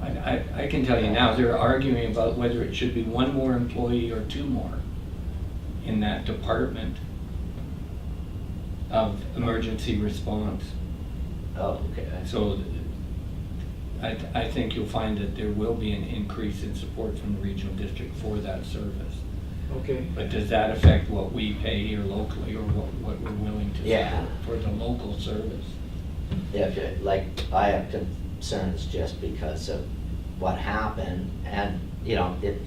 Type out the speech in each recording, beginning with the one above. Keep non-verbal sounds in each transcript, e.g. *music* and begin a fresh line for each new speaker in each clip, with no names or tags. I, I can tell you now, they're arguing about whether it should be one more employee or two more in that department of emergency response.
Oh, okay.
So th- I, th- I think you'll find that there will be an increase in support from the regional district for that service.
Okay.
Um,
But does that affect what we pay here locally or what, what we're willing to
Yeah.
support for the local service?
Yeah, if you- like, I have concerns just because of what happened, and, you know, it,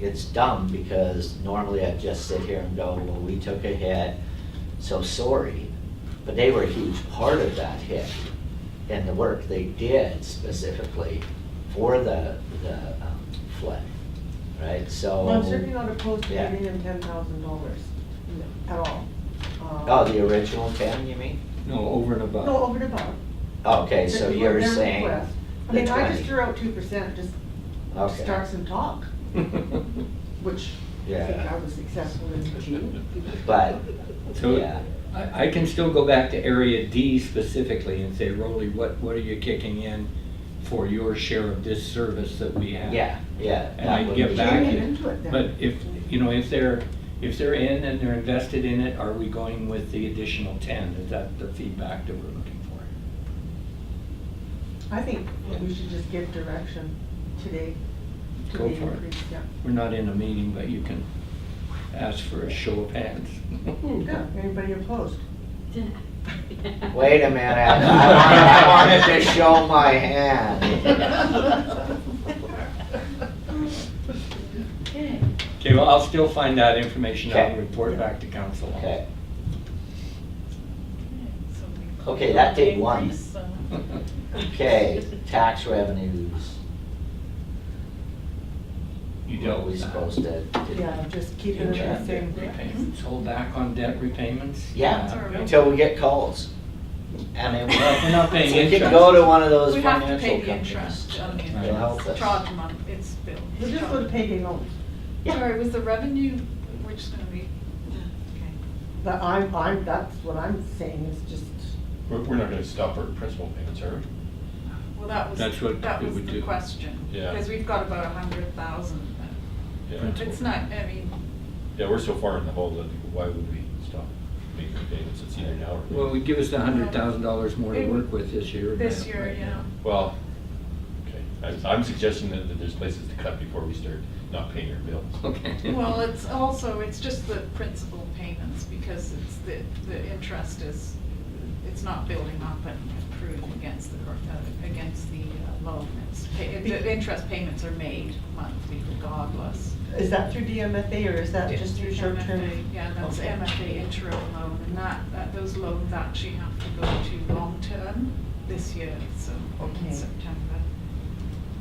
it's dumb, because normally I'd just sit here and go, well, we took a hit, so sorry, but they were a huge part of that hit, and the work they did specifically for the, the um, flood, right, so.
Well, I'm certainly not opposed to
Yeah.
giving them ten thousand dollars at all. Um,
Oh, the original ten, you mean?
No, over and above.
No, over and above.
Okay, so
Their-
you're
their
saying.
request. I
the
mean, I just
20.
threw out two percent, just to
Okay.
start some talk, which I think
Yeah.
I was successful in achieving.
But,
*laughs* So
yeah,
I, I can still go back to area D specifically and say, Rolly, what, what are you kicking in for your share of this service that we have?
yeah, yeah.
And
that
I
would
get
be-
back
Bring it into it then.
But if, you know, if they're, if they're in and they're invested in it, are we going with the additional ten? Is that the feedback that we're looking for?
I think we should just give direction today to the
Go for it.
increase, yeah.
We're not in a meeting, but you can ask for a show of hands. *laughs*
Yeah, anybody
*laughs*
opposed? *laughs*
*laughs*
Wait *laughs* a minute, I wanted, I wanted to show my hand.
Okay.
Okay, well, I'll still find that information out and
Okay.
report back to council.
Okay,
So we-
Okay, that did one.
Increase, uh, so-
*laughs*
okay, tax revenues,
You
what
dealt *laughs*
we
with that.
supposed to do?
Yeah, just keep it
Yeah.
the same.
Debt repayments, hold back on debt repayments?
Yeah, until we get calls. And then
Well, We're not
we'll,
paying
we
interest.
could go to one of those
We have to
financial
pay the
companies.
interest on the
Right.
They'll help
interest,
us.
charge month, it's billed.
We'll just go to payday loans.
Sorry, was the revenue, we're just gonna be, okay.
But I'm, I'm, that's what I'm saying is just,
We're, we're not gonna stop our principal payments, are we?
Well, that was,
That's what
that
we
was
would
the
do.
question.
Yeah.
Because we've got about a hundred thousand.
Yeah,
Principal.
It's not, I mean,
yeah, we're so far in the hole that why would we stop making payments? It's either now or. later.
Well, would give us the hundred thousand dollars more to work with this year.
this
than
year,
right
yeah.
now.
Well, okay, I- I'm suggesting that, that there's places to cut before we start not paying our bills.
Okay.
*laughs* Well, it's also, it's just the principal payments because it's the, the interest is, it's not building up and accruing against the, uh, against the uh, loan. It's, pay- the interest payments are made monthly regardless.
is that through DMFA or is that just through short term?
MFA, Yeah, that's
Okay.
MFA interim loan and that, that, those loans actually have to go to long-term this year, so
Okay.
in September.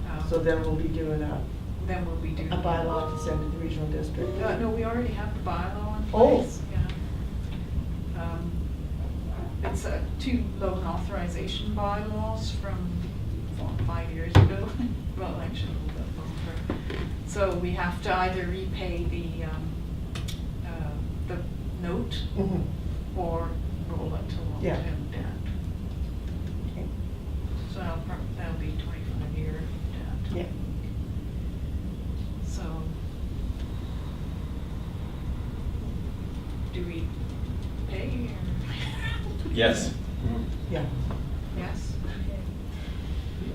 Um,
So then we'll be doing a,
Then we'll be doing.
a bylaw to send to the regional district.
Uh, no, we already have the bylaw in
Oh.
place, yeah. Um, It's uh, two loan authorization bylaws from four, five years ago, *laughs* well, actually, a little bit longer. So we have to either repay the, um, uh, the note
Mhm.
or roll it to
Yeah.
long-term debt.
Okay.
So that'll prob- that'll be twenty-five year debt.
Yeah.
So. Do we pay
*laughs*
or?
Yes.
Yeah.
Yes.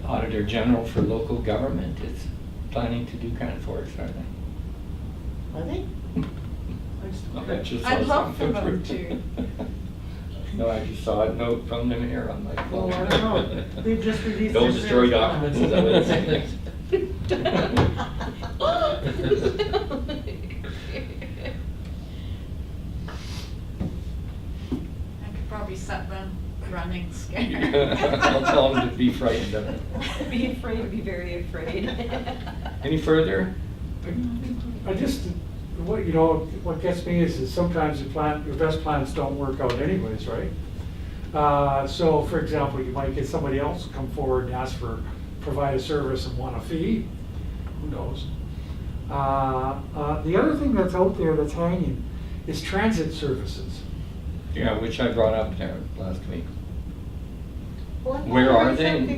The Auditor General for local government is planning to do kind for us, aren't they?
Are they? *laughs*
I bet you saw
I'd love for
something.
them to.
*laughs* No, I just saw a note from them here, I'm like,
Well, I
well,
don't
*laughs*
know. They've just released.
Don't
their
destroy
first one.
documents, is that what it says?
*laughs*
I could probably set them
*laughs*
running scared.
I'll tell them to be frightened of it.
Be afraid, be very afraid.
*laughs* Any further?
*laughs*
I just, what, you know, what gets me is that sometimes the plan, your best plans don't work out anyways, right? Uh, So, for example, you might get somebody else to come forward and ask for, provide a service and want a fee, who knows? Uh, uh, The other thing that's out there that's hanging is transit services.
Yeah, which I brought up there last week.
Well, I thought
Where
there
are
was
they?
something